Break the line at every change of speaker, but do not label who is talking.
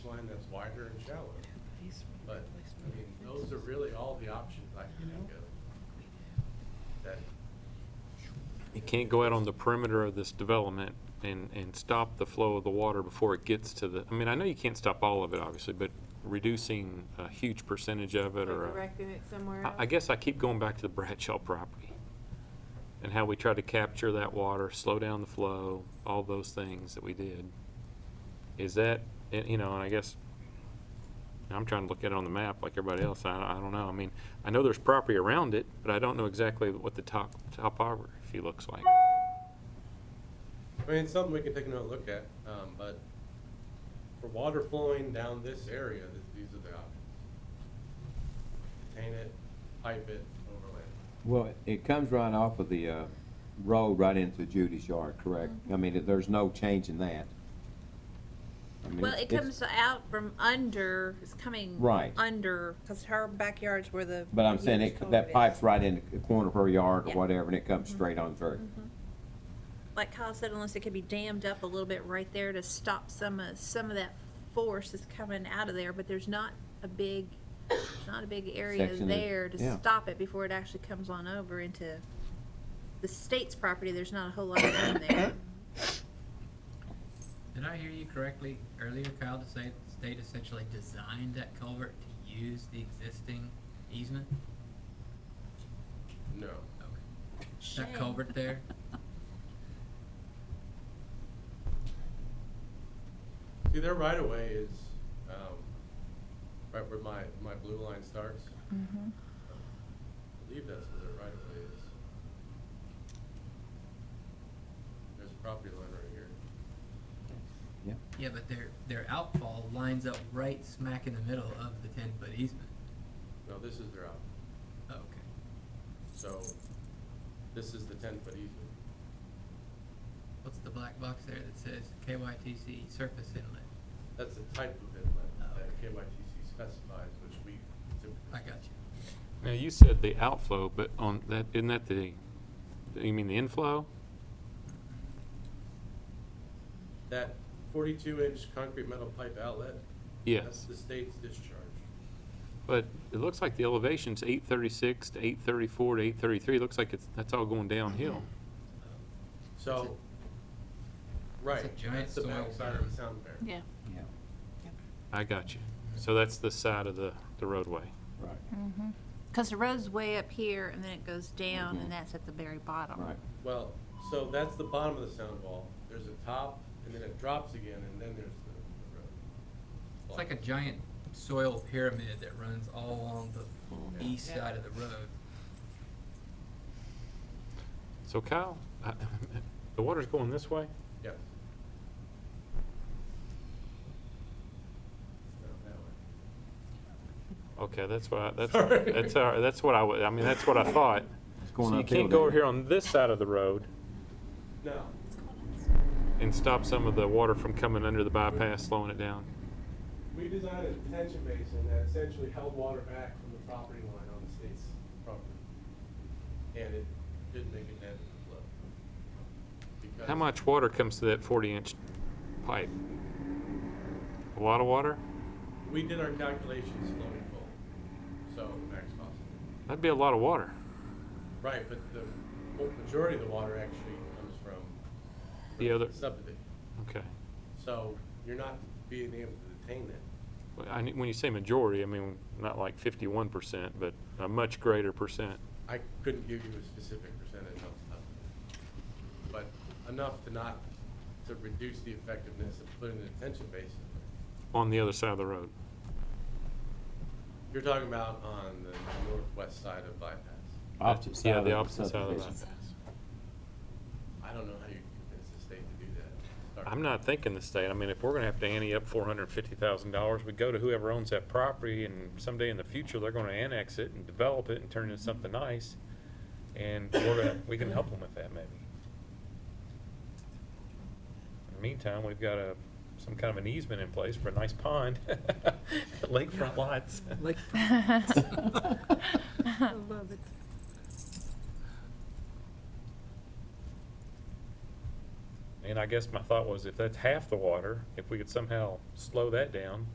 line that's wider and shallower. But, I mean, those are really all the options I can think of. That,
You can't go out on the perimeter of this development and, and stop the flow of the water before it gets to the, I mean, I know you can't stop all of it, obviously, but reducing a huge percentage of it or. a-
Directing it somewhere
I,
else?
I guess I keep going back to the Bradshaw property and how we tried to capture that water, slow down the flow, all those things that we did. Is that, and, you know, and I guess, I'm trying to look at it on the map like everybody else, I, I don't know, I mean, I know there's property around it, but I don't know exactly what the top, topography looks like.
I mean, it's something we can take another look at, um, but for water flowing down this area, th- these are the options. Contain it, pipe it, overlay.
Well, it- it comes right off of the uh, road right into Judy's yard, correct? I mean, it- there's no change in that. I mean,
Well,
it's-
it
it's-
comes out from under, it's coming.
Right.
Under,
Because her backyard's where the.
But I'm saying it, that pipe's right in the corner of her yard or
Yeah. Mm-hmm.
whatever, and it comes straight on through.
like Kyle said, unless it could be dammed up a little bit right there to stop some of, some of that force that's coming out of there, but there's not a big, not a big area
Section of-
there to
yeah.
stop it before it actually comes on over into the state's property, there's not a whole lot of room there.
Did I hear you correctly earlier, Kyle, to say the state essentially designed that culvert to use the existing easement?
No.
Okay.
Shame.
That culvert there?
See, their right of way is, um, right where my, my blue line starts. I believe that's where their right of way is. There's a property line right here.
Yeah.
Yeah, but their, their outfall lines up right smack in the middle of the ten-foot easement.
No, this is their out,
Okay.
so this is the ten foot easement.
What's the black box there that says KYTC surface inlet?
That's the type of inlet
Oh,
that
okay.
KYTC specifies, which we
I
typically.
got you.
Now, you said the outflow, but on that, isn't that the, you mean the inflow?
That forty-two inch concrete metal pipe outlet. That's
Yes,
the state's discharge.
but it looks like the elevation's eight thirty-six to eight thirty-four to eight thirty-three, looks like it's, that's all going downhill.
Mm-hmm.
Um,
So, right,
giant
that's the
soil
backside of
berm.
the sound barrier.
Yeah.
Yeah,
I got you. So that's the side of the, the roadway.
right,
Mm-hmm. Cause the road's way up here and then it goes down
Mhm.
and that's at the very bottom.
right.
Well, so that's the bottom of the sound wall. There's a top, and then it drops again, and then there's the the road.
It's like a giant soil pyramid that runs all along the east
Yeah.
side of the road.
So Kyle, I- the water's going this way?
Yes. Not that way.
Okay, that's what, I- that's,
Sorry.
that's, all right. that's what I, wa- I mean, that's what I thought.
It's going
So you
uphill
can't go
there.
over here on this side of the road
No,
and stop some of the water from coming under the bypass, slowing it down?
we designed a detention basin that essentially held water back from the property line on the state's property. And it didn't make it net flow. Because-
How much water comes to that forty-inch pipe? A lot of water?
We did our calculations flowing full, so max possible.
That'd be a lot of water.
Right, but the mo- majority of the water actually comes from
The other,
subdivision.
okay.
So you're not being able to detain that.
Well, I, knew- when you say majority, I mean, not like fifty-one percent, but a much greater percent.
I couldn't give you a specific percentage off the top of it, but enough to not, to reduce the effectiveness of putting the detention basin.
on the other side of the road.
You're talking about on the northwest side of bypass.
Opposite side
Yeah,
of
the opposite side of the
subdivision.
bypass.
I don't know how you convince the state to do that.
I'm not thinking the state, I mean, if we're gonna have to ante up four hundred and fifty thousand dollars, we go to whoever owns that property and someday in the future, they're gonna annex it and develop it and turn it into something nice. And we're gonna, we can help them with that maybe. In the meantime, we've got a, some kind of an easement in place for a nice pond, lakefront lots.
I love it.
And I guess my thought was if that's half the water, if we could somehow slow that down,